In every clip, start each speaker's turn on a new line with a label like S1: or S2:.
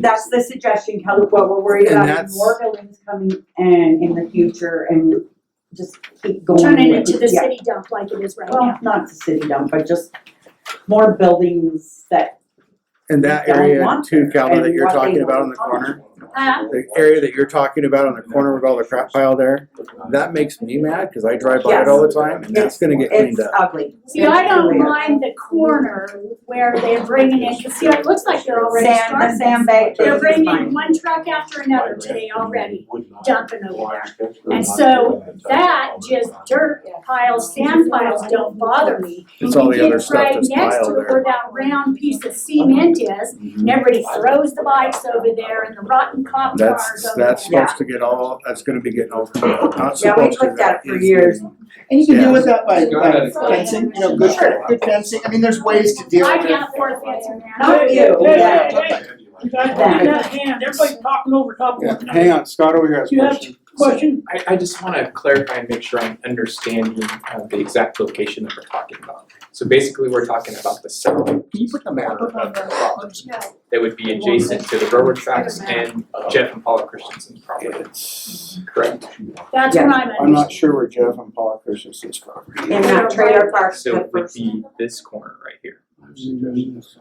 S1: That's the suggestion, Kelly, what we're worried
S2: And
S1: about is
S2: that's-
S1: more buildings coming in in the future and just keep going.
S3: Turn it
S1: with
S3: into the
S1: yeah. Oh.
S3: city dump like it is right now.
S1: Well, not the city dump, but just more buildings that,
S2: And that
S1: We don't
S2: area
S1: want
S2: too,
S1: there,
S2: Calvin, that
S1: and
S2: you're
S1: what they
S2: talking about on
S1: don't
S2: the
S1: want.
S2: corner,
S3: Huh?
S2: the area that you're talking about on the corner with all the crap pile there, that makes me mad, cause I drive by it all the time, and that's gonna get cleaned
S1: it's
S2: up.
S1: ugly.
S3: See, I don't
S1: Clear.
S3: mind the corner where they're bringing in, cause see, it looks like they're already
S1: Sand, the
S3: starting.
S1: sandbag pit
S3: They're
S1: is
S3: bringing
S1: fine.
S3: one truck after another today already, dumping over there. And so that just dirt piles, sand piles don't bother me.
S2: It's all the
S3: You
S2: other
S3: get
S2: stuff
S3: right
S2: that's
S3: next to
S2: piled there. Mm-hmm.
S3: where that round piece of cement is, and everybody throws the bikes over there and the rotten cop cars
S2: That's,
S3: over there.
S2: that's supposed to get all, that's gonna be getting all cleaned up, not
S1: Yeah, we
S2: supposed to.
S1: looked at it for
S2: It's-
S1: years.
S4: And you can
S2: Yeah.
S4: deal with that by, by
S5: Got
S3: it.
S4: fencing, you know, good,
S3: Sure.
S4: good fencing, I mean, there's ways to deal
S3: I
S4: with it.
S3: can't afford fencing, man.
S1: Not you,
S6: Hey,
S1: Oh, yeah.
S6: hey, hey, You guys don't get out of hand, everybody's talking over top of one
S2: Hang
S6: another.
S2: on, Scott over here has a
S6: You have-
S2: question.
S6: Question,
S7: I, I just wanna clarify and make sure I'm understanding uh, the exact location that we're talking about. So basically, we're talking about the south
S4: Can you put the map up on that?
S3: No.
S7: that would be adjacent to the railroad tracks and Jeff and Paula Christensen's property,
S2: It's,
S7: correct?
S3: That's what I'm
S2: I'm not sure where Jeff and Paul Christensen's property
S1: In that trailer park.
S7: So it would be this corner right here.
S2: is.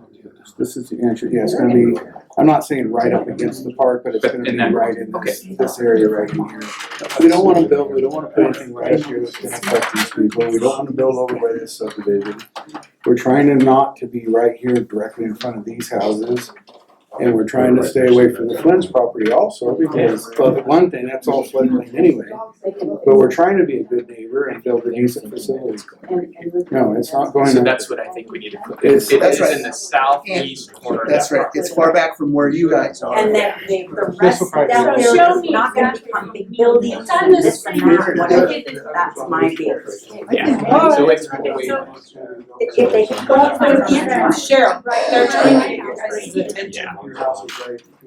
S2: This is the answer, yeah, it's gonna be, I'm not saying right up against the park, but it's
S7: But
S2: gonna
S7: in
S2: be
S7: that-
S2: right in this, this area right in here. We don't wanna build, we don't wanna put anything right up here that's gonna affect these people, we don't wanna build over by this subdivision. We're trying to not to be right here directly in front of these houses. And we're trying to stay away from the Flynn's property also, because, well, the one thing, that's all floodplain anyway. But we're trying to be a good neighbor and build a decent facility. No, it's not going.
S7: So
S2: up.
S7: that's what I think we need to put, it
S2: It's-
S7: is in
S4: That's right.
S7: the southeast corner of
S4: That's
S7: that
S4: right,
S7: property.
S4: it's far back from where you guys are.
S1: And then the, the
S2: This
S1: rest
S2: will
S1: of
S2: probably
S1: that
S2: be-
S3: So show
S1: area
S3: me
S1: is not gonna
S3: exactly.
S1: become big buildings
S3: It's on
S1: and
S3: the
S1: this and
S3: screen.
S1: that, and whatever. That's my fear.
S7: Yeah, so it's way.
S1: If if they could put up some fence, Cheryl, they're trying to-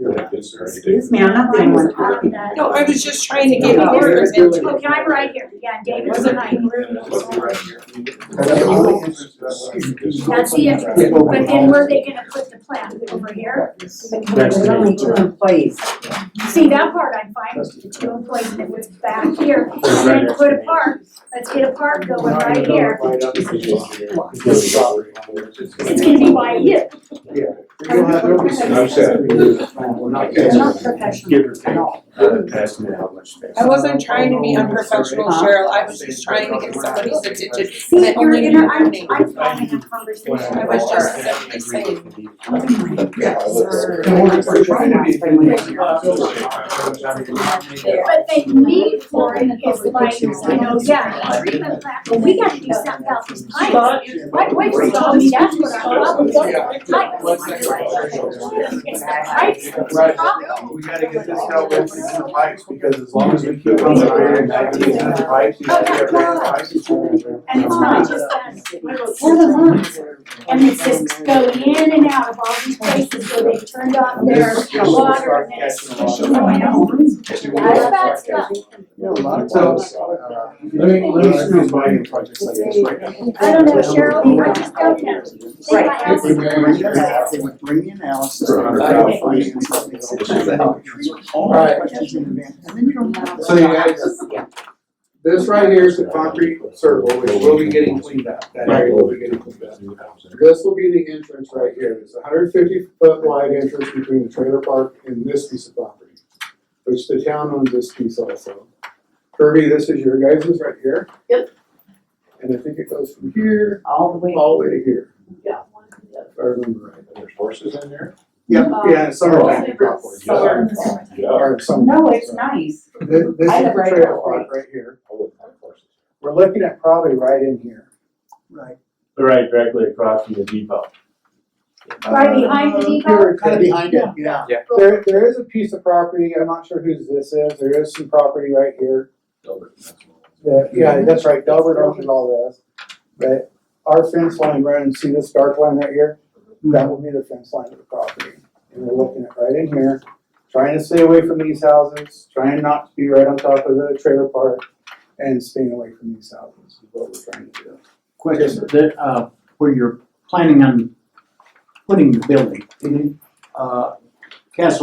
S7: Yeah.
S1: excuse me, I'm not the only one talking.
S8: No, I was just trying to
S1: get
S8: get
S1: Yeah.
S8: yours
S1: yours
S8: into.
S3: Okay, I'm right here, yeah, David's behind. That's the entrance, but then where are they gonna put the plant, over here?
S1: There's only two employees.
S3: See, that part I'm fine, with, the two employees that was back here, and then put a park, let's get a park going right here. It's gonna be by you,
S5: I'm sorry.
S1: They're not professional at all.
S8: I wasn't trying to be unprofessional, Cheryl, I was just trying to get somebody's attention.
S1: See, you're gonna, I'm,
S8: Only-
S1: I'm having a conversation.
S8: I was just simply saying,
S4: We're trying to
S3: but they need for it is like, you know, yeah, a treatment plant, but we gotta do something about these pipes.
S6: Scott,
S3: My wife was telling me that's what our problem is, the pipes. It's the pipes that's the problem.
S2: We gotta get this dealt with in the pipes, because as long as we keep on the iron, that keeps in the pipes, you gotta get rid of the
S3: And it's not just us, and it's just going in and out of all these places where they turned off their water and it's. Oh, I know. That's bad stuff.
S2: Let me, let me see if my project's like this right now.
S3: I don't know, Cheryl, I just don't know. See, my
S1: Right.
S3: house is
S4: Bring your
S3: not-
S4: math, bring the analysis,
S5: Right.
S4: bring the crowdfunding and stuff, et cetera. All the questions in advance, and then you don't have.
S2: So you guys, this right here is the concrete circle, which will be getting cleaned up, that area will be getting cleaned up. This will be the entrance right here, it's a hundred fifty foot wide entrance between the trailer park and this piece of property, which the town owns this piece also. Kirby, this is your guys's right here.
S8: Yep.
S2: And I think it goes from here
S1: All the way.
S2: all the way to here,
S8: yeah.
S2: if I remember right.
S5: There's horses in there?
S2: Yeah, yeah, it's somewhere back in Rockport.
S1: Uh, Somewhere.
S2: Or somewhere.
S1: No, it's nice.
S2: Thi- This,
S1: I
S2: is the
S1: live right
S2: trailer
S1: now.
S2: park right here. We're looking at probably right in here.
S4: Right,
S5: Right, directly across from the depot.
S3: Right behind the depot?
S2: Uh, Here,
S4: kind of behind it, yeah.
S2: There, there is a piece of property, I'm not sure whose this is, there is some property right here. that- yeah, that's right, Delbert owns all this. But our fence line runs, see this dark line right here?
S3: Hmm.
S2: That will be the fence line of the property. And we're looking at right in here, trying to stay away from these houses, trying not to be right on top of the trailer park and staying away from these houses is what we're trying to do.
S9: Question, that, uh, where you're planning on putting the building, uh, Castle